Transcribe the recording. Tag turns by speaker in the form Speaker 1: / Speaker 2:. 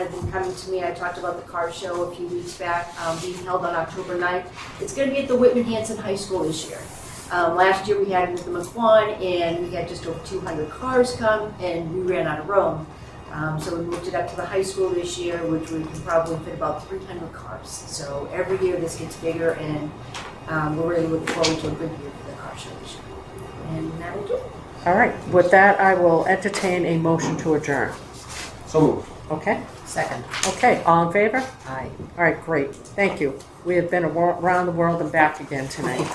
Speaker 1: have been coming to me. I talked about the car show a few weeks back, um, being held on October 9th. It's gonna be at the Whitman Hanson High School this year. Um, last year, we had it at the McQuon, and we had just over two hundred cars come, and we ran out of room. Um, so we moved it up to the high school this year, which we can probably fit about three hundred cars. So every year, this gets bigger, and, um, we're really looking forward to a good year for the car show this year. And that will do it.
Speaker 2: All right, with that, I will entertain a motion to adjourn.
Speaker 3: So moved.
Speaker 2: Okay?
Speaker 4: Second.
Speaker 2: Okay, all in favor?
Speaker 4: Aye.
Speaker 2: All right, great. Thank you. We have been around the world and back again tonight.